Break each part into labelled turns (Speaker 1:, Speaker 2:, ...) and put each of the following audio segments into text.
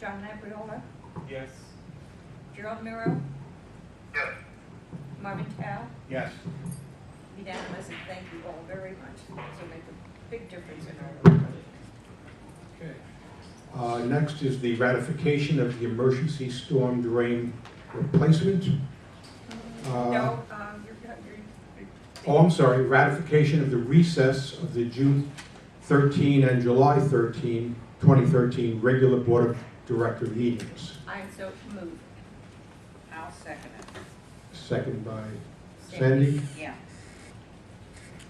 Speaker 1: John Labriola,
Speaker 2: Yes.
Speaker 1: Gerald Miro,
Speaker 3: Yes.
Speaker 1: Marvin Tao,
Speaker 2: Yes.
Speaker 1: unanimous, and thank you all very much. This will make a big difference in our work.
Speaker 2: Okay.
Speaker 4: Uh, Next is the ratification of the emergency storm drain replacement. Uh,
Speaker 1: No, um, you're, you're,
Speaker 4: Oh, I'm sorry, ratification of the recess of the June 13 and July 13, 2013 regular Board of Director meetings.
Speaker 1: I'm so moved. I'll second it.
Speaker 4: Second by Sandy,
Speaker 1: Yeah.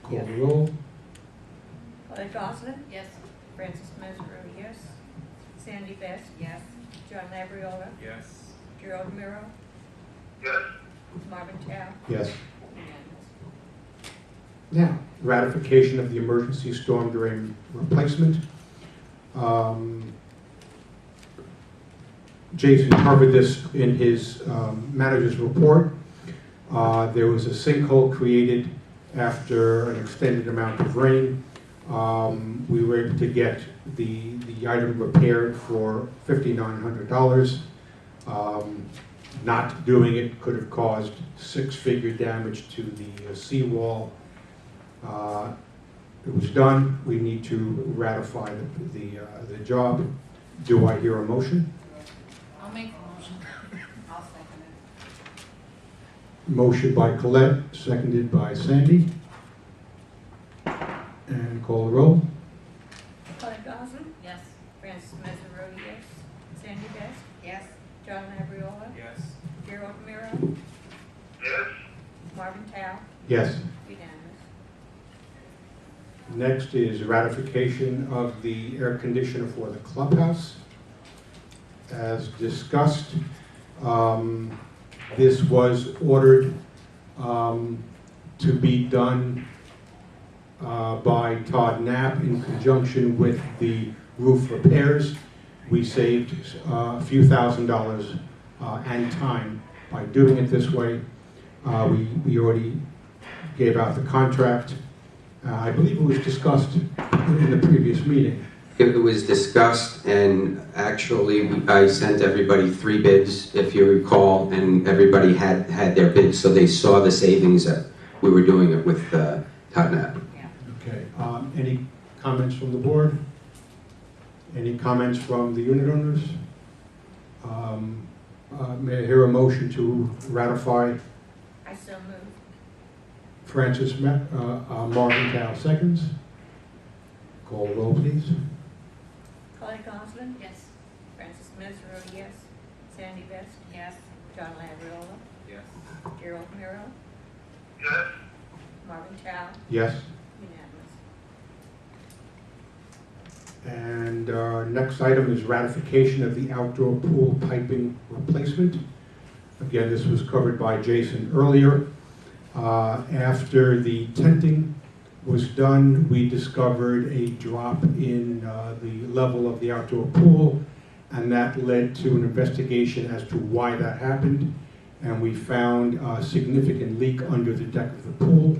Speaker 4: call the roll.
Speaker 1: Clay Goslin? Yes. Francis Mesro, yes. Sandy Best? Yes. John Labriola,
Speaker 2: Yes.
Speaker 1: Gerald Miro,
Speaker 3: Yes.
Speaker 1: Marvin Tao,
Speaker 4: Yes.
Speaker 1: unanimous.
Speaker 4: Now, ratification of the emergency storm drain replacement. Um, Jason covered this in his um, manager's report. Uh, There was a sinkhole created after an extended amount of rain. Um, We were able to get the, the item repaired for $5,900. Um, Not doing it could have caused six-figure damage to the uh, seawall. Uh, It was done, we need to ratify the- the, uh, the job. Do I hear a motion?
Speaker 5: I'll make the motion. I'll second it.
Speaker 4: Motion by Colette, seconded by Sandy. And call the roll.
Speaker 1: Clay Goslin?
Speaker 5: Yes.
Speaker 1: Francis Mesro, yes. Sandy Best?
Speaker 5: Yes.
Speaker 1: John Labriola,
Speaker 2: Yes.
Speaker 1: Gerald Miro,
Speaker 3: Yes.
Speaker 1: Marvin Tao,
Speaker 4: Yes.
Speaker 1: unanimous.
Speaker 4: Next is ratification of the air conditioner for the clubhouse. As discussed, um, this was ordered um, to be done uh, by Todd Knapp in conjunction with the roof repairs. We saved uh, a few thousand dollars uh, and time by doing it this way. Uh, We we already gave out the contract. Uh, I believe it was discussed in the previous meeting.
Speaker 6: It was discussed, and actually, I sent everybody three bids, if you recall, and everybody had, had their bids, so they saw the savings that we were doing it with uh, Tottenham.
Speaker 4: Okay. um, Any comments from the board? Any comments from the unit owners? Um, uh, May I hear a motion to ratify
Speaker 1: I so move.
Speaker 4: Francis Ma- uh, uh, Marvin Dow seconds? Call roll, please.
Speaker 1: Clay Goslin,
Speaker 5: Yes.
Speaker 1: Francis Mesro, yes. Sandy Best,
Speaker 5: Yes.
Speaker 1: John Labriola,
Speaker 2: Yes.
Speaker 1: Gerald Miro,
Speaker 3: Yes.
Speaker 1: Marvin Tao,
Speaker 4: Yes.
Speaker 1: unanimous.
Speaker 4: And uh, next item is ratification of the outdoor pool piping replacement. Again, this was covered by Jason earlier. Uh, After the tenting was done, we discovered a drop in uh, the level of the outdoor pool, and that led to an investigation as to why that happened, and we found a significant leak under the deck of the pool.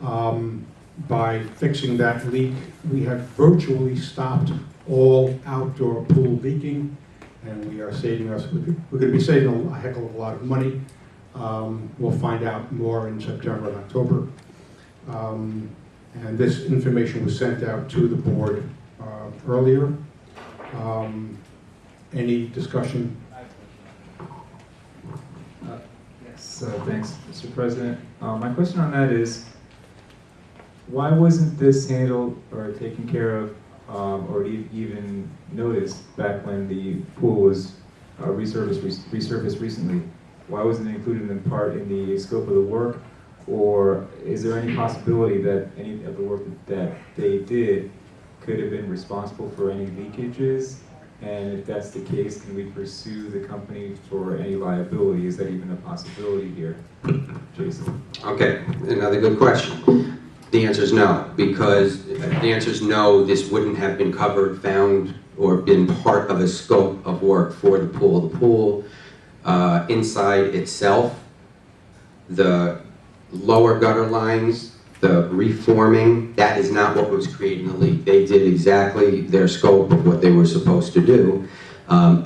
Speaker 4: Um, by fixing that leak, we have virtually stopped all outdoor pool leaking, and we are saving us, we're gonna be saving a heck of a lot of money. Um, We'll find out more in September and October. Um, And this information was sent out to the board uh, earlier. Um, Any discussion?
Speaker 7: Yes, uh, thanks, Mr. President. Uh, My question on that is, why wasn't this handled or taken care of um, or e- even noticed back when the pool was uh, resurfaced resurfaced recently? Why wasn't it included in part in the scope of the work? Or is there any possibility that any of the work that they did could have been responsible for any leakages? And if that's the case, can we pursue the company for any liability? Is that even a possibility here, Jason?
Speaker 6: Okay, another good question. The answer is no, because the answer is no, this wouldn't have been covered, found, or been part of a scope of work for the pool. The pool uh, inside itself, the lower gutter lines, the reforming, that is not what was creating the leak. They did exactly their scope of what they were supposed to do. Um,